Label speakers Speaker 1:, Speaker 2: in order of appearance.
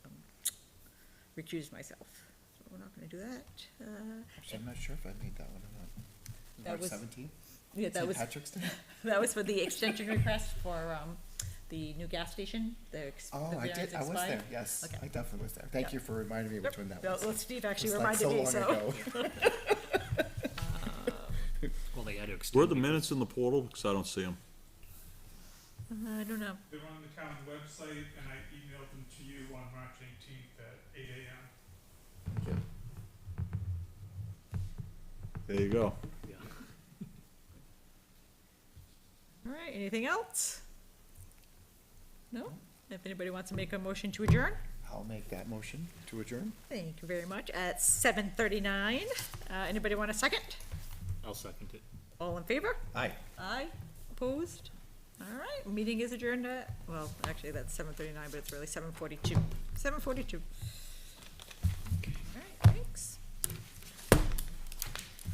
Speaker 1: recuse myself. So We're not gonna do that. Uh,
Speaker 2: Actually, I'm not sure if I made that one or not.
Speaker 1: That was-
Speaker 2: March seventeenth?
Speaker 1: Yeah, that was,
Speaker 2: St. Patrick's Day?
Speaker 1: that was for the extension request for, um, the new gas station, the ex- the
Speaker 2: Oh, I
Speaker 1: variance
Speaker 2: did, I was
Speaker 1: expired.
Speaker 2: there, yes,
Speaker 1: Okay.
Speaker 2: I definitely was there. Thank
Speaker 1: Yep.
Speaker 2: you for reminding me which one that
Speaker 1: Well,
Speaker 2: was.
Speaker 1: well,
Speaker 2: It
Speaker 1: Steve actually
Speaker 2: was like
Speaker 1: reminded
Speaker 2: so
Speaker 1: me,
Speaker 2: long
Speaker 1: so.
Speaker 2: ago.
Speaker 3: Well, they had to
Speaker 4: Were
Speaker 3: extend.
Speaker 4: the minutes in the portal? Because I don't see them.
Speaker 1: I don't know.
Speaker 5: They're on the town website, and I emailed them to you on March eighteenth at eight AM.
Speaker 4: There you go.
Speaker 1: All right, anything else? No? If anybody wants to make a motion to adjourn?
Speaker 2: I'll make that motion to adjourn.
Speaker 1: Thank you very much. At seven thirty-nine, uh, anybody want a second?
Speaker 3: I'll second it.
Speaker 1: All in favor?
Speaker 2: Aye.
Speaker 1: Aye. Opposed? All right, meeting is adjourned at, well, actually, that's seven thirty-nine, but it's really seven forty-two. Seven forty-two.